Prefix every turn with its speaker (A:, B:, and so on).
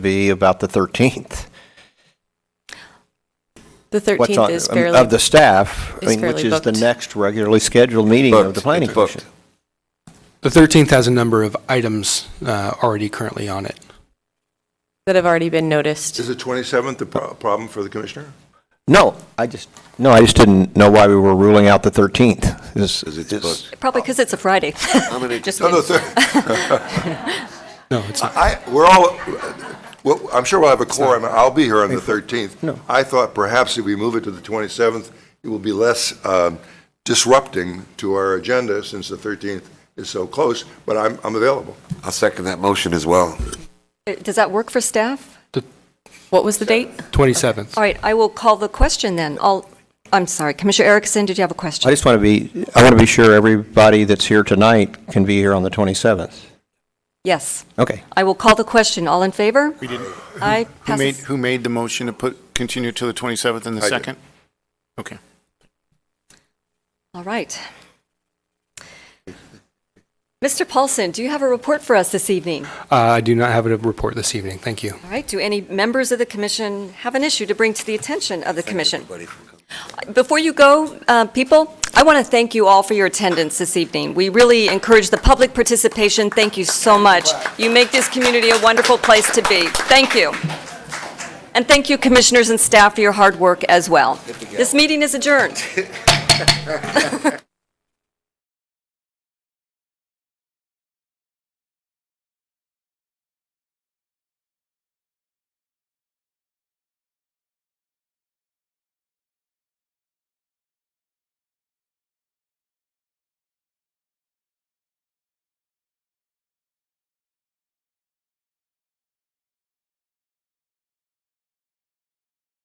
A: be about the 13th.
B: The
A: What's
B: 13th
A: on-
B: is
A: um,
B: fairly.
A: Of the staff, I
B: is
A: mean, which
B: fairly
A: is the
B: booked.
A: next regularly scheduled meeting of
C: Booked.
A: the planning
C: It's booked.
A: commission.
D: The 13th has a number of items uh, already currently on it.
B: that have already been noticed.
C: Is the 27th a pro- problem for the commissioner?
A: No, I just, no, I just didn't know why we were ruling out the 13th. Is-
C: Because it's
A: is-
C: booked.
E: Probably because it's a Friday.
C: How many?
E: Just
C: No, no,
E: kidding.
C: Oh, thir-
D: No, it's not.
C: I, we're all, well, I'm sure we'll have a quorum, I'll be here on the 13th. No. I thought perhaps if we move it to the 27th, it will be less um, disrupting to our agenda since the 13th is so close, but I'm, I'm available.
F: I'll second that motion as well.
E: Does that work for staff?
B: What was the date?
D: 27th.
E: All right, I will call the question then. I'll, I'm sorry, Commissioner Erickson, did you have a
A: I
E: question?
A: just want to be, I want to be sure everybody that's here tonight can be here on the 27th.
E: Yes,
A: Okay.
E: I will call the question. All in favor? We didn't. I
G: Who made,
E: passes.
G: who made the motion to put, continue to the 27th and the
C: I did.
G: 2nd? Okay.
E: All right. Mr. Paulson, do you have a report for us this evening?
D: Uh, I do not have a report this evening. Thank you.
E: All right, do any members of the commission have an issue to bring to the attention of the commission? Before you go, uh, people, I want to thank you all for your attendance this evening. We really encourage the public participation. Thank you so much. You make this community a wonderful place to be. Thank you. And thank you, commissioners and staff, for your hard work as well. This meeting is adjourned.